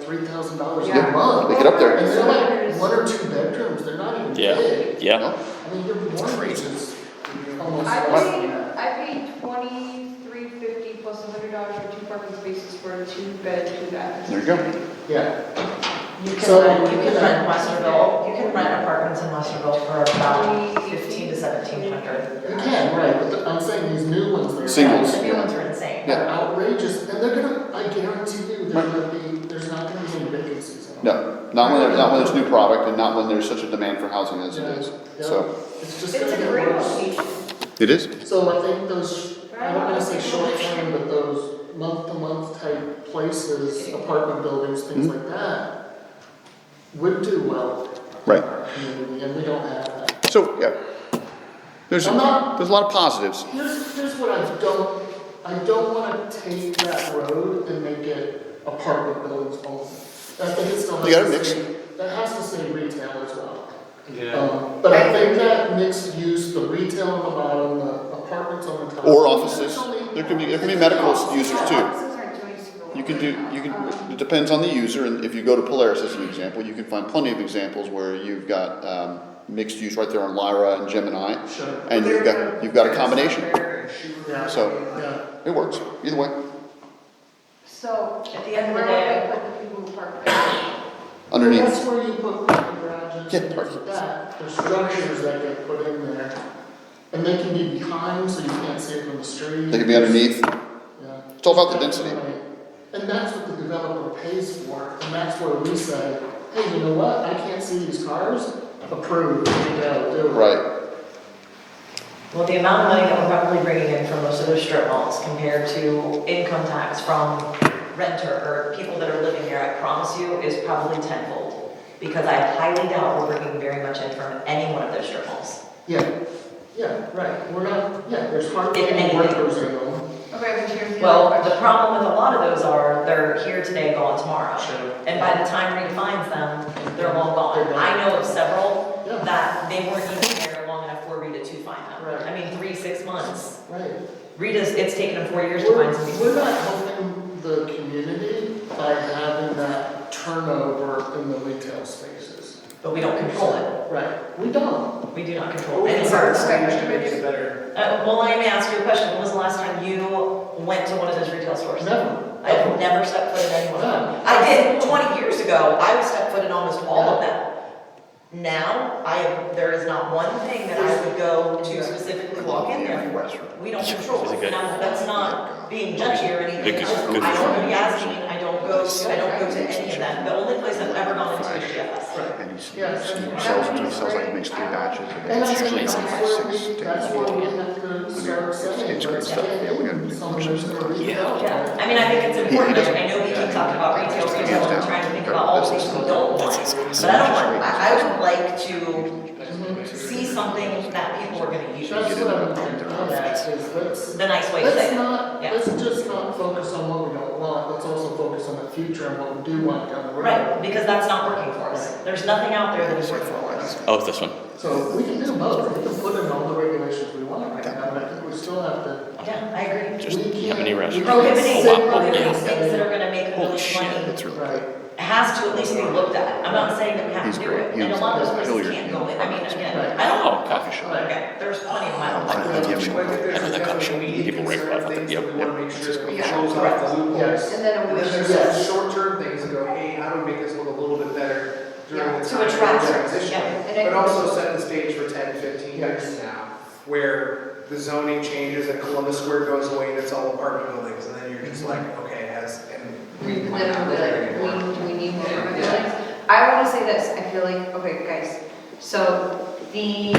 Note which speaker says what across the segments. Speaker 1: three thousand dollars a
Speaker 2: Yeah.
Speaker 1: month.
Speaker 3: They get up there.
Speaker 1: And they're like one or two bedrooms, they're not even
Speaker 4: Yeah.
Speaker 1: big.
Speaker 4: Yeah,
Speaker 1: I mean, your mortgage is almost.
Speaker 2: I
Speaker 1: less
Speaker 2: paid,
Speaker 1: than that.
Speaker 2: I paid twenty-three fifty plus a hundred dollars for two parking spaces for a two-bed, two-bath.
Speaker 3: There you go.
Speaker 1: Yeah,
Speaker 5: You can
Speaker 1: So-
Speaker 5: rent, you can rent Westerville, you can rent apartments in Westerville for about
Speaker 2: Twenty-
Speaker 5: fifteen to seventeen hundred.
Speaker 1: you can, right, but the- I'm saying these new ones, they're.
Speaker 3: Singles.
Speaker 5: The new ones are insane.
Speaker 3: Yeah.
Speaker 1: Outrageous, and they're gonna, I guarantee you, they're gonna be, there's not gonna be any vacancies. at all.
Speaker 3: No, not when there's, not when there's new product and not when there's such a demand for housing as it
Speaker 1: Yeah.
Speaker 3: is.
Speaker 1: Yeah.
Speaker 3: So,
Speaker 1: It's
Speaker 2: It's
Speaker 1: just gonna
Speaker 2: a
Speaker 1: get
Speaker 2: great
Speaker 1: worse.
Speaker 2: location.
Speaker 3: it is.
Speaker 1: So I think those, I don't wanna say short term, but those month-to-month type places, apartment buildings, things
Speaker 3: Mm-hmm.
Speaker 1: like that, would do well. in
Speaker 3: Right.
Speaker 1: our community, And we don't have that.
Speaker 3: So, yeah. There's,
Speaker 1: I'm not-
Speaker 3: there's a lot of positives.
Speaker 1: Here's, here's what I don't, I don't wanna take that road and make it apartment buildings only. I think it's still
Speaker 3: You
Speaker 1: has
Speaker 3: gotta
Speaker 1: to
Speaker 3: mix.
Speaker 1: say, that has to say retail as well.
Speaker 6: Yeah.
Speaker 1: Um, But I think that mixed use, the retail on the bottom, the apartments on the top.
Speaker 3: Or offices. There can be, there can be medical users too.
Speaker 2: Offices aren't doing super well
Speaker 3: You can do, you can,
Speaker 2: right now. Um,
Speaker 3: it depends on the user, and if you go to Polaris as an example, you can find plenty of examples where you've got, um, mixed use right there on Lyra and Gemini,
Speaker 1: Sure,
Speaker 3: and you've got, you've got a combination.
Speaker 1: yeah.
Speaker 3: So,
Speaker 1: Yeah,
Speaker 3: it works, either way.
Speaker 2: So,
Speaker 5: At the end
Speaker 2: and where
Speaker 5: of the
Speaker 2: would I
Speaker 5: day,
Speaker 2: put the people who park there?
Speaker 3: Underneath,
Speaker 1: That's where you put parking garages
Speaker 3: Yeah,
Speaker 1: and things
Speaker 3: parking.
Speaker 1: like that, there's structures that get put in there. And they can be behind, so you can't see it from the street.
Speaker 3: they can be underneath,
Speaker 1: Yeah.
Speaker 3: it's all about the density.
Speaker 1: Right. And that's what the developer pays for, and that's where we say, hey, you know what, I can't see these cars, approved, you gotta do it.
Speaker 3: Right,
Speaker 5: well, the amount of money that we're probably bringing in from most of those strip malls compared to income tax from renter or people that are living there, I promise you, is probably tenfold. Because I highly doubt we're bringing very much in from any one of those strip malls.
Speaker 1: Yeah, yeah, right, we're not, yeah, there's hardly
Speaker 5: If
Speaker 1: any
Speaker 5: anything.
Speaker 1: workers in them.
Speaker 2: Okay, but here's the other
Speaker 5: Well, the
Speaker 2: question.
Speaker 5: problem with a lot of those are, they're here today, gone tomorrow.
Speaker 1: Sure.
Speaker 5: And by the time Reed finds them, they're all gone. I know of several
Speaker 1: Yeah.
Speaker 5: that they weren't even there long enough for Rita to find them.
Speaker 1: Right.
Speaker 5: I mean, three, six months.
Speaker 1: Right.
Speaker 5: Rita's, it's taken them four years to
Speaker 1: We're,
Speaker 5: find some of these
Speaker 1: we're
Speaker 5: people.
Speaker 1: not helping the community by having that turnover in the retail spaces.
Speaker 5: but we don't control it.
Speaker 1: Right, we don't.
Speaker 5: We do not control it. And it hurts. Uh,
Speaker 6: Actually make it better.
Speaker 5: well, let me ask you a question. When was the last time you went to one of those retail stores?
Speaker 1: Never.
Speaker 5: I've never stepped foot in any one of
Speaker 1: No.
Speaker 5: them. I did twenty years ago, I would step foot in almost all of them. Now, I, there is not one thing that I would go to specifically walk in there for. We don't control,
Speaker 4: Is it good?
Speaker 5: and I'm- that's not being judgy or anything,
Speaker 4: Good,
Speaker 5: I
Speaker 4: good,
Speaker 5: just, I
Speaker 4: good.
Speaker 5: don't go to Yasmin, I don't go, I don't go to any of them, the only place I've ever gone into is GFS.
Speaker 7: And he's,
Speaker 1: Yeah,
Speaker 7: he's- he
Speaker 1: so-
Speaker 7: sells, he sells like, makes three batches of it.
Speaker 1: And I
Speaker 7: It's
Speaker 1: think
Speaker 7: usually
Speaker 1: that's
Speaker 7: only like
Speaker 1: where
Speaker 7: six
Speaker 1: we,
Speaker 7: to
Speaker 1: that's
Speaker 7: eight
Speaker 1: where
Speaker 7: people.
Speaker 1: we have to start
Speaker 7: it's-
Speaker 1: saying.
Speaker 7: it's great
Speaker 1: let's
Speaker 7: stuff.
Speaker 1: get
Speaker 7: Yeah, we gotta do
Speaker 1: some
Speaker 7: more
Speaker 1: of the
Speaker 7: stuff.
Speaker 1: retail.
Speaker 5: Yeah, I mean, I think it's important,
Speaker 7: doesn't-
Speaker 5: I know we keep talking about retail,
Speaker 7: Hands
Speaker 5: retail, and
Speaker 7: down.
Speaker 5: trying to think about all the things we don't want, but I don't want, I, I would like to see something that people are gonna use.
Speaker 1: That's what I'm thinking of, is let's,
Speaker 5: The nice way to say
Speaker 1: let's
Speaker 5: it.
Speaker 1: not,
Speaker 5: Yeah.
Speaker 1: let's just not focus on what we don't want, let's also focus on the future and what we do want down the road.
Speaker 5: Right, because that's not working for us. There's nothing out there that is working for us.
Speaker 4: oh, it's this one.
Speaker 1: So we can do both, we can put in all the regulations we want right now, but I think we still have to.
Speaker 5: Yeah, I agree.
Speaker 4: Just
Speaker 1: we
Speaker 4: how many
Speaker 1: can't-
Speaker 4: restaurants?
Speaker 5: Prohibiting,
Speaker 1: Sit right
Speaker 5: prohibiting
Speaker 1: there.
Speaker 5: things that are gonna make a
Speaker 4: Holy
Speaker 5: million
Speaker 4: shit,
Speaker 5: money
Speaker 7: It's really,
Speaker 1: Right,
Speaker 5: has to at least be looked at. I'm not saying that we have
Speaker 7: He's
Speaker 5: to do
Speaker 7: great.
Speaker 5: it,
Speaker 7: He
Speaker 5: and a
Speaker 7: was-
Speaker 5: lot of those places
Speaker 7: Hilliard,
Speaker 5: can't
Speaker 7: yeah.
Speaker 5: go in. I mean, again,
Speaker 1: Right.
Speaker 5: I don't
Speaker 4: Oh, coffee shop.
Speaker 5: Okay, there's plenty of
Speaker 7: I
Speaker 5: my
Speaker 7: don't
Speaker 5: life.
Speaker 7: like that. Do you have any-
Speaker 4: People rave about that. Yep,
Speaker 6: We wanna make sure that we
Speaker 5: Yeah.
Speaker 6: close off the loopholes.
Speaker 1: yes,
Speaker 2: And then a
Speaker 6: And
Speaker 2: wish
Speaker 6: then there's
Speaker 1: Yes.
Speaker 6: those short-term things that go, hey, how do we make this look a little bit better during
Speaker 2: Yeah,
Speaker 6: the
Speaker 5: to
Speaker 6: time of
Speaker 5: attract,
Speaker 6: transition?
Speaker 5: yeah.
Speaker 2: And I
Speaker 6: But
Speaker 2: think-
Speaker 6: also set the stage for 10, 15 years
Speaker 1: Yes.
Speaker 6: now, where the zoning changes and Columbus Square goes away and it's all apartment buildings, and then you're just like, okay, it has, and.
Speaker 2: We
Speaker 6: we
Speaker 2: live
Speaker 6: might not
Speaker 2: with
Speaker 6: live there
Speaker 2: it.
Speaker 6: anymore.
Speaker 2: we, we need more
Speaker 6: Yeah.
Speaker 2: regulations. I wanna say this, I feel like, okay, guys, so the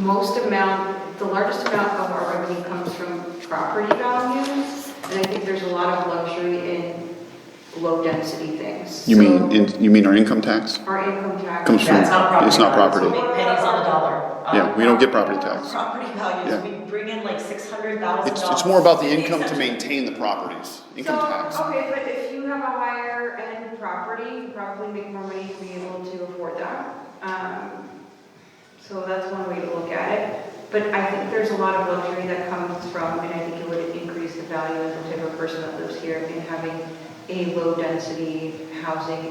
Speaker 2: most amount, the largest amount of our revenue comes from property values, and I think there's a lot of luxury in low-density things.
Speaker 3: You
Speaker 2: So
Speaker 3: mean, in- you mean our income tax?
Speaker 2: Our income tax.
Speaker 3: Comes from-
Speaker 5: Yeah, it's not property.
Speaker 3: It's not
Speaker 5: values.
Speaker 3: property.
Speaker 5: We make pennies on the dollar. Um,
Speaker 3: Yeah, we don't get property tax.
Speaker 5: Property
Speaker 3: Yeah.
Speaker 5: values, we bring in like six hundred thousand
Speaker 3: It's,
Speaker 5: dollars.
Speaker 3: it's more about the income to maintain the properties, income
Speaker 2: So,
Speaker 3: tax.
Speaker 2: Okay, but if you have a higher end property, you probably make more money to be able to afford that. Um, So that's one way to look at it. But I think there's a lot of luxury that comes from, and I think it would increase the value of the type of person that lives here in having a low-density housing